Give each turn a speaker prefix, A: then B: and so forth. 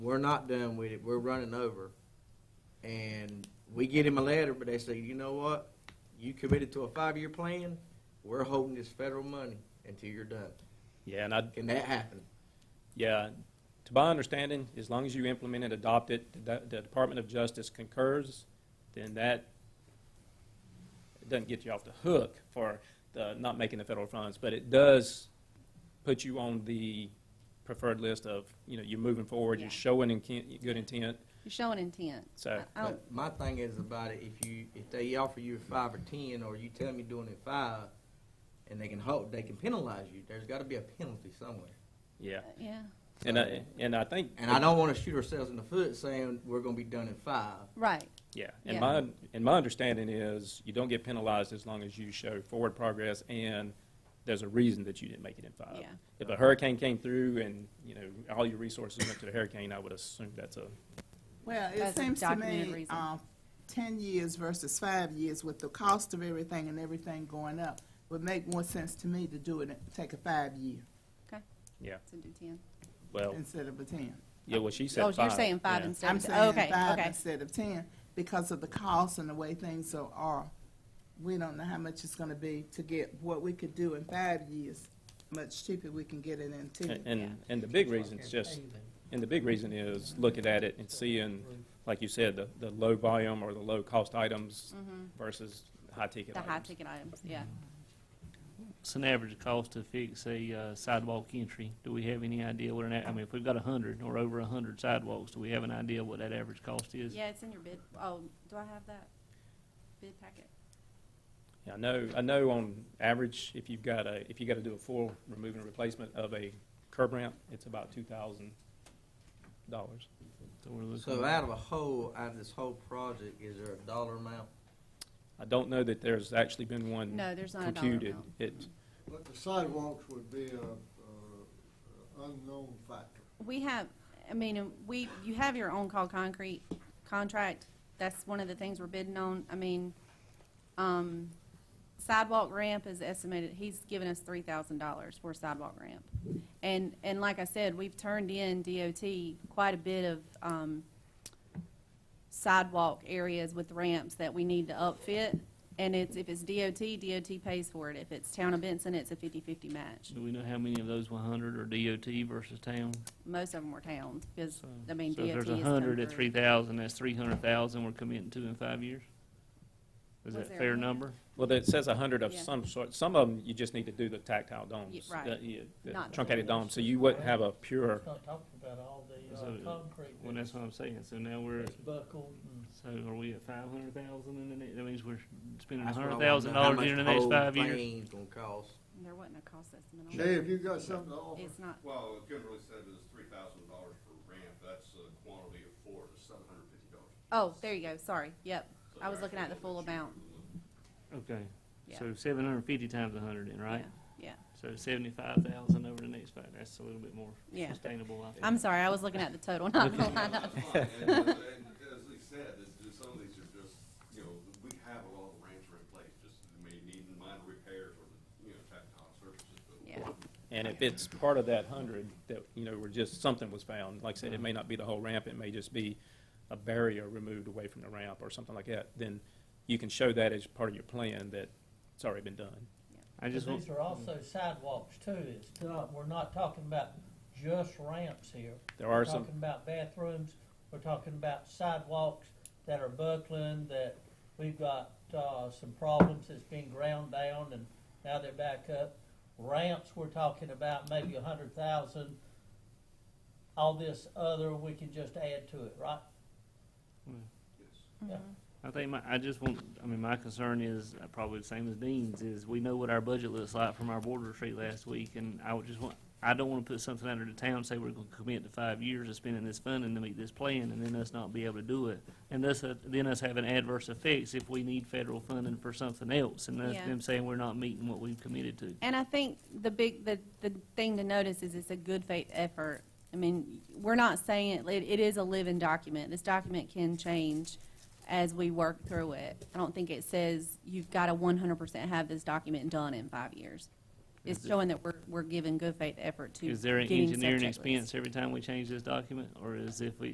A: we're not done with it, we're running over. And we get him a letter, but they say, you know what? You committed to a five-year plan, we're holding this federal money until you're done.
B: Yeah, and I,
A: Can that happen?
B: yeah, to my understanding, as long as you implement and adopt it, the the Department of Justice concurs, then that doesn't get you off the hook for the, not making the federal funds, but it does put you on the preferred list of, you know, you're moving forward,
C: Yeah.
B: you're showing intent- good intent,
C: You're showing intent.
B: So,
C: I- I don't-
A: My thing is about it, if you, if they offer you five or ten, or you tell me doing it five, and they can hold, they can penalize you, there's gotta be a penalty somewhere.
B: yeah.
C: Yeah,
B: And I, and I think.
A: And I don't wanna shoot ourselves in the foot saying we're gonna be done in five.
C: right,
B: Yeah, and
C: Yeah.
B: my, and my understanding is you don't get penalized as long as you show forward progress and there's a reason that you didn't make it in five.
C: yeah.
B: If a hurricane came through and, you know, all your resources went to the hurricane, I would assume that's a,
D: Well, it
C: That's a
D: seems to
C: documented
D: me,
C: reason.
D: um, ten years versus five years with the cost of everything and everything going up, would make more sense to me to do it, take a five year
C: To do ten.
B: well,
D: instead of a ten.
B: yeah, well, she said
C: Oh,
B: five.
C: you're saying five
B: yeah.
C: instead
D: I'm
C: of, ten.
D: saying
C: okay,
D: five
C: okay.
D: instead of ten because of the cost and the way things are- are. We don't know how much it's gonna be to get what we could do in five years, much cheaper we can get it in
B: And-
D: two.
B: And, and the big reason is just, and the big reason is looking at it and seeing, like you said, the, the low volume or the low cost items
C: Mhm.
B: versus high ticket
C: The high
B: items.
C: ticket items, yeah.
E: It's an average cost to fix a uh, sidewalk entry. Do we have any idea what an, a- I mean, if we've got a hundred or over a hundred sidewalks, do we have an idea what that average cost is?
C: Yeah, it's in your bid, oh, do I have that bid packet?
B: Yeah, I know, I know on average, if you've got a, if you gotta do a full remove and replacement of a curb ramp, it's about two thousand dollars.
E: So we're looking-
A: So out of a whole, out of this whole project, is there a dollar amount?
B: I don't know that there's actually been one
C: No, there's not a dollar
B: computed.
C: amount.
B: It,
F: But the sidewalks would be a, a unknown factor.
C: We have, I mean, we, you have your own call concrete contract. That's one of the things we're bidding on. I mean, um, sidewalk ramp is estimated, he's given us three thousand dollars for sidewalk ramp. And, and like I said, we've turned in DOT quite a bit of, um, sidewalk areas with ramps that we need to upfit. And it's, if it's DOT, DOT pays for it. If it's Town of Benson, it's a fifty-fifty match.
E: Do we know how many of those one hundred are DOT versus town?
C: Most of them were towns, because,
E: So-
C: I mean,
E: So
C: DOT
E: if
C: has
E: there's a
C: come
E: hundred at
C: through.
E: three thousand, that's three hundred thousand we're committing to in five years?
C: Was
E: Is that
C: there
E: a
C: a
E: fair
C: hand?
E: number?
B: well, it says a hundred of
C: Yeah.
B: some sort. Some of them, you just need to do the tactile domes.
C: Yeah, right.
B: the- yeah, the
C: Not the
B: Truncated
C: full
B: domes, so you wouldn't have a pure,
G: Not talking about all the
E: So,
G: uh, concrete.
E: Well, that's what I'm saying. So now we're,
G: that's Buckled and.
E: so are we at five hundred thousand in the next, that means we're spending a
A: That's what I
E: hundred
A: wanna know,
E: thousand
A: how
E: dollars
A: much
E: during the next
A: whole
E: five years?
A: thing's gonna cost.
C: There wasn't a cost estimate on
F: Jay,
C: it.
F: have you got something to offer?
C: It's not,
H: Well, Kimberly said it was three thousand dollars per ramp, that's a quantity of four, it's seven hundred fifty dollars.
C: oh, there you go, sorry, yep. I was looking at the full amount.
E: Okay,
C: Yeah.
E: so seven hundred and fifty times a hundred then, right?
C: Yeah,
E: So seventy-five thousand over the next five, that's a little bit more
C: Yeah.
E: sustainable, I think.
C: I'm sorry, I was looking at the total, not the
H: And,
C: lineup.
H: and as he said, it's just- some of these are just, you know, we have a lot of ramps are in place, just may need minor repairs or, you know, tactile surfaces, but
C: Yeah,
B: and if it's part of that hundred, that, you know, where just something was found, like I said, it may not be the whole ramp, it may just be a barrier removed away from the ramp or something like that, then you can show that as part of your plan that it's already been done.
E: I just
G: But
E: want,
G: These are also sidewalks too, it's not, we're not talking about just ramps here.
B: There are
G: We're
B: some,
G: Talking about bathrooms, we're talking about sidewalks that are buckling, that we've got, uh, some problems that's been ground down and now they're back up. Ramps, we're talking about maybe a hundred thousand. All this other, we can just add to it, right?
H: yes.
E: I think my, I just want, I mean, my concern is uh, probably the same as Dean's, is we know what our budget looks like from our board retreat last week, and I would just want, I don't wanna put something under the town, say we're gonna commit to five years of spending this funding to meet this plan, and then us not be able to do it. And thus, uh, then us having adverse effects if we need federal funding for something else, and us-
C: Yeah.
E: them saying we're not meeting what we've committed to.
C: And I think the big, the, the thing to notice is it's a good faith effort. I mean, we're not saying, it, it is a living document. This document can change as we work through it. I don't think it says you've got to one hundred percent have this document done in five years. it's
E: Is it-
C: showing that we're, we're giving good faith effort to
E: Is there an
C: getting
E: engineering
C: subject lists.
E: expense every time we change this document, or is if we,